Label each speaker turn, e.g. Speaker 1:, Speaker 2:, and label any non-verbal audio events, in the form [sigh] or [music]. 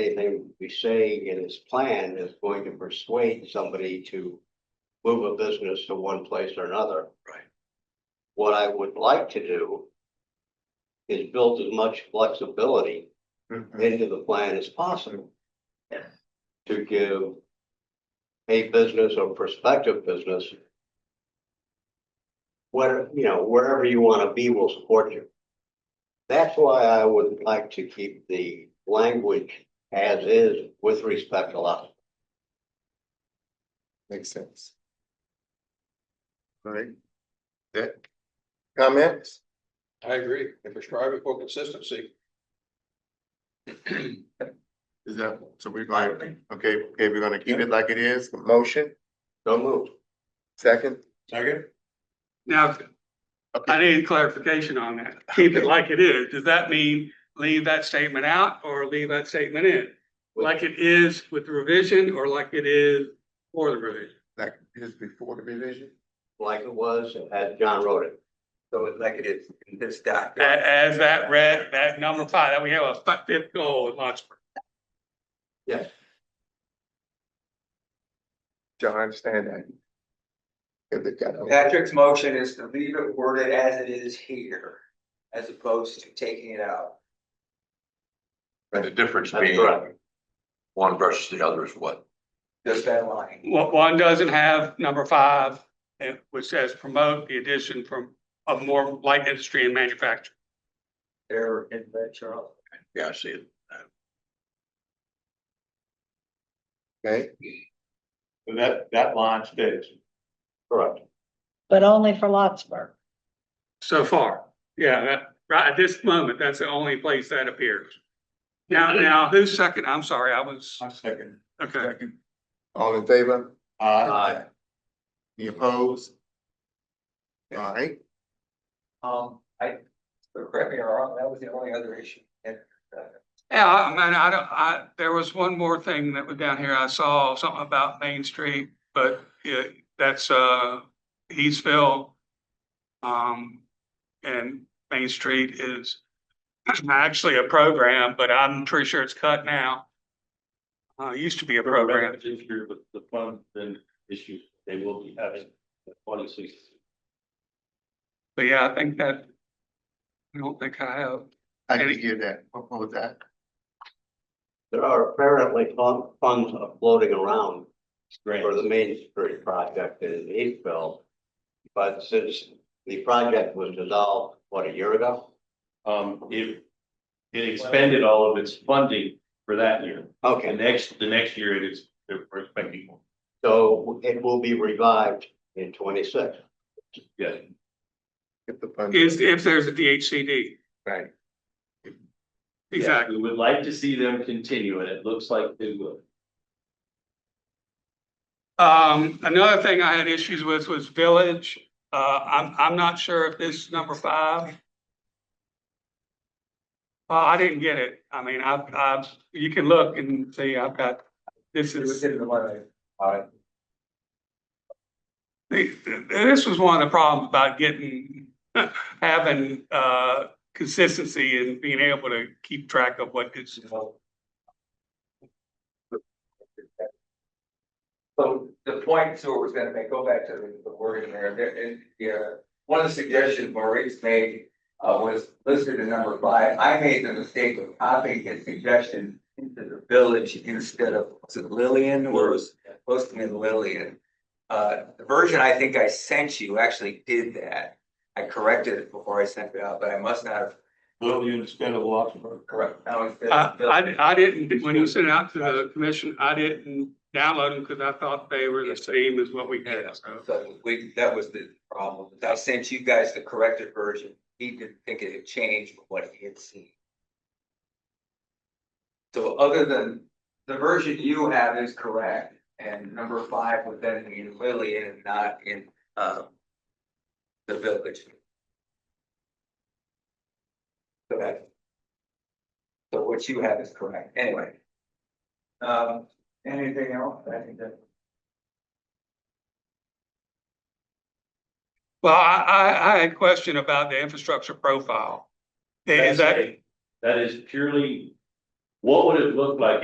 Speaker 1: anything we say in his plan is going to persuade somebody to move a business to one place or another.
Speaker 2: Right.
Speaker 1: What I would like to do is build as much flexibility
Speaker 3: Mm-hmm.
Speaker 1: into the plan as possible.
Speaker 2: Yeah.
Speaker 1: To give a business or prospective business where, you know, wherever you want to be will support you. That's why I would like to keep the language as is with respect to lot.
Speaker 3: Makes sense. Right. That, comments?
Speaker 4: I agree. If we're striving for consistency,
Speaker 3: Is that, so we're like, okay, okay, we're gonna keep it like it is, motion,
Speaker 1: Don't move.
Speaker 3: second?
Speaker 2: Second?
Speaker 5: Now, I need clarification on that. Keep it like it is. Does that mean leave that statement out or leave that statement in? Like it is with the revision or like it is for the revision?
Speaker 3: Like it is before the revision?
Speaker 1: Like it was as John wrote it.
Speaker 2: So it's like it is in this
Speaker 5: A-
Speaker 2: document.
Speaker 5: As that red, that number five, that we have a fi- fifth goal in Lawrenceburg.
Speaker 1: Yes.
Speaker 3: Do I understand that? If they got,
Speaker 2: Patrick's motion is to leave it worded as it is here, as opposed to taking it out.
Speaker 6: And the difference
Speaker 1: That's
Speaker 6: being
Speaker 1: correct.
Speaker 6: one versus the other is what?
Speaker 2: Just that line.
Speaker 5: One, one doesn't have number five, eh, which says promote the addition from of more light industry and manufacturing.
Speaker 2: There in the Charles.
Speaker 6: Yeah, I see it.
Speaker 3: okay,
Speaker 6: That, that line stays.
Speaker 1: Correct.
Speaker 7: but only for Lotsburg.
Speaker 5: So far, yeah, that, right at this moment, that's the only place that appears. Now, now, who's second? I'm sorry, I was,
Speaker 6: second.
Speaker 5: okay.
Speaker 3: all in favor,
Speaker 1: Aye.
Speaker 3: any opposed? All right,
Speaker 2: Um, I, so correct me if I'm wrong, that was the only other issue. And
Speaker 5: Yeah, I mean, I don't, I, there was one more thing that was down here. I saw something about Main Street, but yeah, that's, uh, Eastville. Um, and Main Street is actually a program, but I'm pretty sure it's cut now. Uh, it used to be a program.
Speaker 8: This year with the fund then issue, they will be having the twenty six.
Speaker 5: But yeah, I think that. I don't think I have.
Speaker 3: I didn't hear that, what what was that?
Speaker 1: There are apparently fun- funds floating around for the Main Street project in Eastville. But since the project was dissolved, what, a year ago?
Speaker 8: Um, it, it expended all of its funding for that year. The
Speaker 1: Okay,
Speaker 8: next, the next year it is, they're expecting more.
Speaker 1: so it will be revived in twenty-six.
Speaker 8: Yeah.
Speaker 3: If the fund-
Speaker 5: Is, if there's a DHCD,
Speaker 3: Right,
Speaker 5: exactly.
Speaker 8: We would like to see them continue and it looks like they will.
Speaker 5: Um, another thing I had issues with was village. Uh, I'm, I'm not sure if this is number five. Uh, I didn't get it. I mean, I, I, you can look and see, I've got, this
Speaker 2: it was
Speaker 5: is,
Speaker 2: in the line. All right.
Speaker 5: this was one of the problems about getting, [laughs] having, uh, consistency and being able to keep track of what is
Speaker 2: So the point Stuart was gonna make, go back to the- the wording there, there, and, yeah, one of the suggestions Maurice made. Uh, was listed in number five, I made the mistake of copying his suggestion into the village instead of, was it Lillian or was it supposed to be Lillian? Uh, the version I think I sent you actually did that, I corrected it before I sent it out, but I must not have
Speaker 6: Will you instead of Luxembourg?
Speaker 2: corrected.
Speaker 5: I, I, I didn't, when you sent it out to the commission, I didn't download them because I thought they were the same as what we had, so.
Speaker 2: So we, that was the problem. I sent you guys the corrected version. He didn't think it had changed from what he had seen. So other than the version you have is correct and number five would then be in Lillian and not in um. The village. So that. So what you have is correct anyway. Um, anything else? I think that.
Speaker 5: Well, I, I, I had a question about the infrastructure profile. Is that,
Speaker 8: That is purely What would it look like